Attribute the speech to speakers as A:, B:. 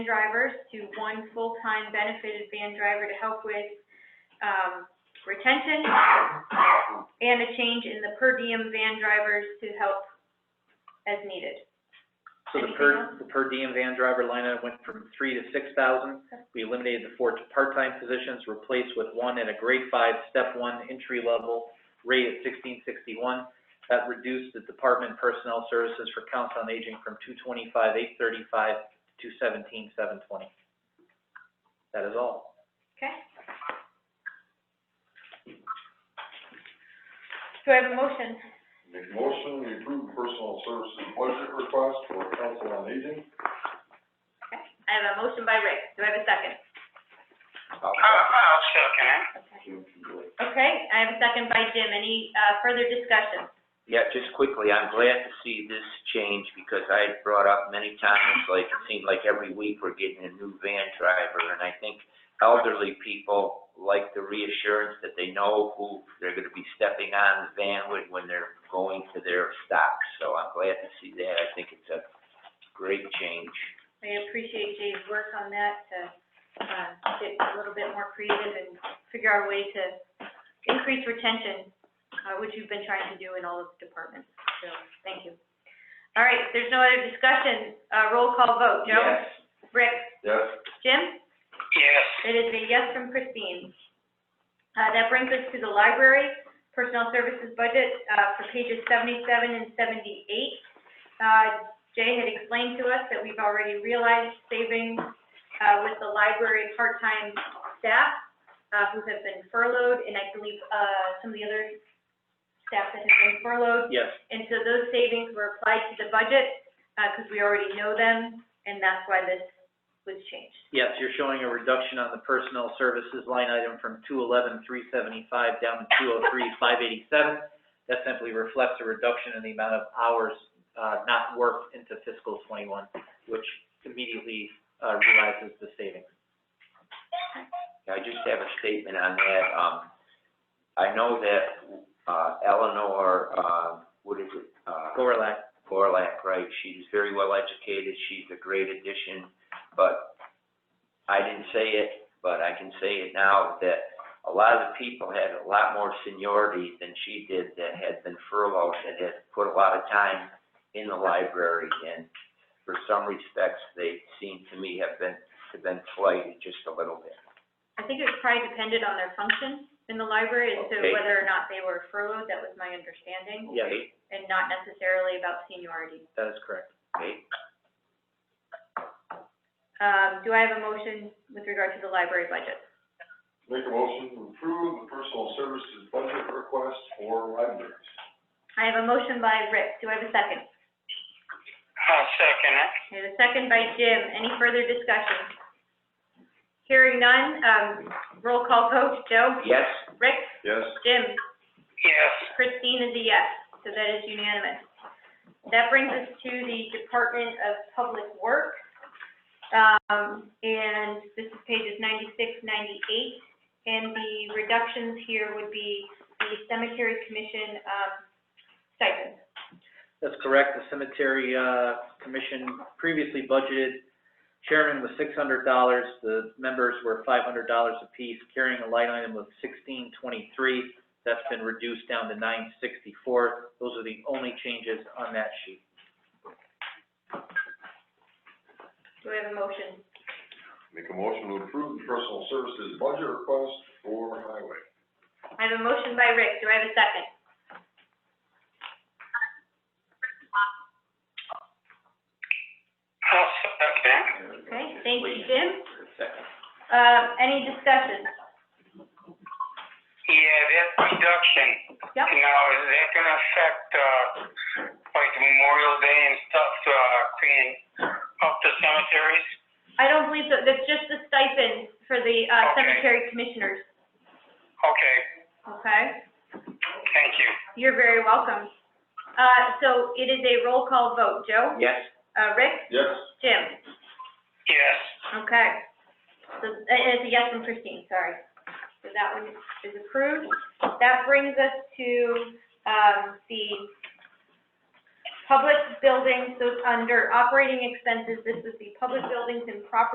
A: drivers to one full-time benefited van driver to help with, um, retention, and a change in the per diem van drivers to help as needed.
B: So the
A: Anything
B: per,
A: else?
B: the per diem van driver line item went from three to six thousand. We eliminated the four part-time positions, replaced with one at a grade five, step one, entry level, rate at sixteen sixty-one. That reduced the Department Personnel Services for Council on Aging from two twenty-five, eight thirty-five to seventeen, seven twenty. That is all.
A: Okay? Do I have a motion?
C: Make a motion, we approve personal services budget request for council on aging.
A: Okay. I have a motion by Rick. Do I have a second?
D: I'll second it.
C: Jim can do it.
A: Okay, I have a second by Jim. Any, uh, further discussion?
E: Yeah, just quickly, I'm glad to see this change because I had brought up many times, like, it seemed like every week we're getting a new van driver. And I think elderly people like the reassurance that they know who they're gonna be stepping on the van with when they're going to their stops. So I'm glad to see that. I think it's a great change.
A: I appreciate Jay's work on that to, uh, get a little bit more creative and figure out a way to increase retention, uh, which you've been trying to do in all of the departments, so, thank you. All right, if there's no other discussion, uh, roll call vote, Joe?
E: Yes.
A: Rick?
C: Yes,
A: Jim?
D: Yes,
A: It is a yes from Christine. Uh, that brings us to the library personnel services budget, uh, for pages seventy-seven and seventy-eight. Uh, Jay had explained to us that we've already realized savings, uh, with the library part-time staff, uh, who have been furloughed, and I believe, uh, some of the other staff that have been furloughed.
B: Yes,
A: And so those savings were applied to the budget, uh, because we already know them, and that's why this was changed.
B: yes, you're showing a reduction on the personnel services line item from two eleven, three seventy-five down to two oh three, five eighty-seven. That simply reflects a reduction in the amount of hours, uh, not worked into fiscal twenty-one, which immediately, uh, realizes the savings.
E: I just have a statement on that. Um, I know that, uh, Eleanor, uh, what is it? Uh,
B: Gorlak,
E: Borlak, right, she's very well educated, she's a great addition, but I didn't say it, but I can say it now, that a lot of the people had a lot more seniority than she did that had been furloughed, that had put a lot of time in the library, and for some respects, they seem to me have been, have been slighted just a little bit.
A: I think it was probably dependent on their function in the library as to
E: Okay.
A: whether or not they were furloughed, that was my understanding,
B: Yeah.
E: Okay,
A: and not necessarily about seniority.
B: that is correct.
E: okay,
A: Um, do I have a motion with regard to the library budget?
C: make a motion to approve the personal services budget request for libraries.
A: I have a motion by Rick, do I have a second?
D: I'll second it.
A: I have a second by Jim, any further discussion? Hearing none, um, roll call vote, Joe?
E: yes,
A: Rick?
C: Yes,
A: Jim?
D: Yes,
A: Christine is a yes, so that is unanimous. That brings us to the Department of Public Works. Um, and this is pages 96, 98, and the reductions here would be the cemetery commission, um, stipend.
B: That's correct, the cemetery, uh, commission previously budgeted, chairman was six hundred dollars, the members were five hundred dollars apiece, carrying a line item of sixteen twenty-three. That's been reduced down to nine sixty-four, those are the only changes on that sheet.
A: Do I have a motion?
C: make a motion to approve the personal services budget request for highway.
A: I have a motion by Rick, do I have a second?
D: I'll second it.
A: Okay, thank you, Jim.
E: second,
A: Um, any discussion?
D: Yeah, that reduction,
A: Yep.
D: now, is that gonna affect, uh, like Memorial Day and stuff, uh, cleaning up the cemeteries?
A: I don't believe that, that's just the stipend for the, uh,
D: Okay.
A: cemetery commissioners,
D: Okay,
A: okay?
D: thank you.
A: You're very welcome. Uh, so it is a roll call vote. Joe?
E: yes,
A: Uh, Rick?
C: Yes,
A: Jim?
D: Yes,
A: Okay. So, uh, it's a yes from Christine, sorry. So that one is approved. That brings us to, um, the public buildings, so it's under operating expenses, this is the public buildings and property